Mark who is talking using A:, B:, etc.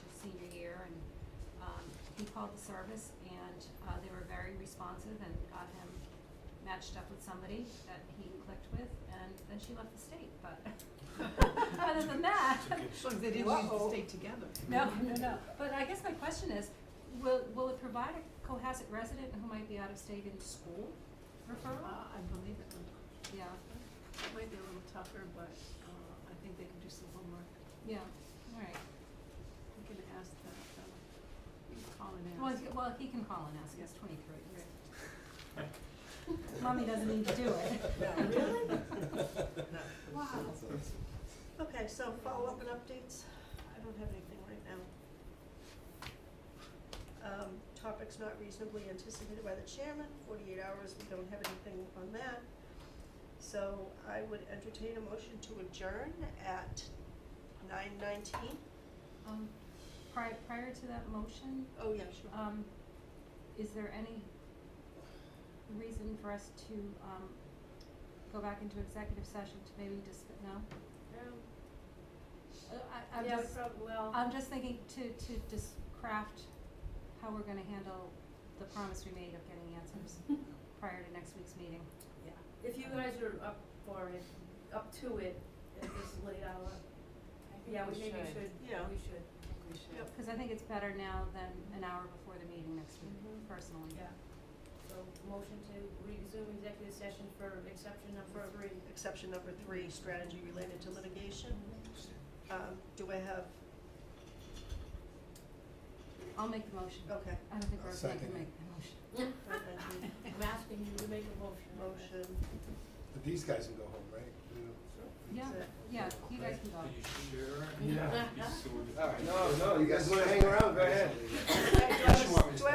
A: um, called the service and uh they were very responsive and got him matched up with somebody that he clicked with and then she left the state, but other than that,
B: As long as they didn't use the
A: Whoa.
B: state together.
A: no, no, no. But I guess my question is, will, will it provide a Cohasset resident who might be out of state in school
B: Uh,
A: referral?
B: I believe it would.
A: Yeah,
B: It might be a little tougher, but, uh, I think they can do some homework.
A: yeah, all right.
B: We can ask that, uh, we can call and
A: Well,
B: ask.
A: he- well, he can call and ask, he's twenty-three. Mommy doesn't need to do it.
B: No,
C: really?
B: Wow. Okay, so follow-up and updates, I don't have anything right now.
D: Um, topics not reasonably anticipated by the chairman, forty-eight hours, we don't have anything on that. So I would entertain a motion to adjourn at nine nineteen.
A: Um, prior, prior to that motion,
D: Oh, yeah, sure.
A: um, is there any reason for us to, um, go back into executive session to maybe just, no? Uh, I, I'm just,
D: well.
A: I'm just thinking to, to just craft how we're gonna handle the promise we made of getting answers prior to next week's meeting.
E: Yeah, if you guys are up for it, up to it at this late hour, yeah, we maybe should, we should.
D: Yeah.
C: We should.
D: Yep.
A: Cause I think it's better now than an hour before the meeting next week,
E: Mm-hmm.
D: Mhm.
A: personally.
E: Yeah, so motion to resume executive session for exception number three.
D: Exception number three, strategy related to litigation.
E: Mm-hmm.
D: Um, do I have,
A: I'll make the motion.
D: okay,
A: I don't think
C: I'll
A: Rosemary can
C: second it.
A: make the motion.
D: thank you.
E: I'm asking you to make a motion.
D: motion,
C: But these guys can go home, right?
A: Yeah,
D: Is it-
A: yeah, you guys can go.
F: Are you sure?
E: Yeah.
F: Be sorted.
C: No, no, you guys wanna hang around, go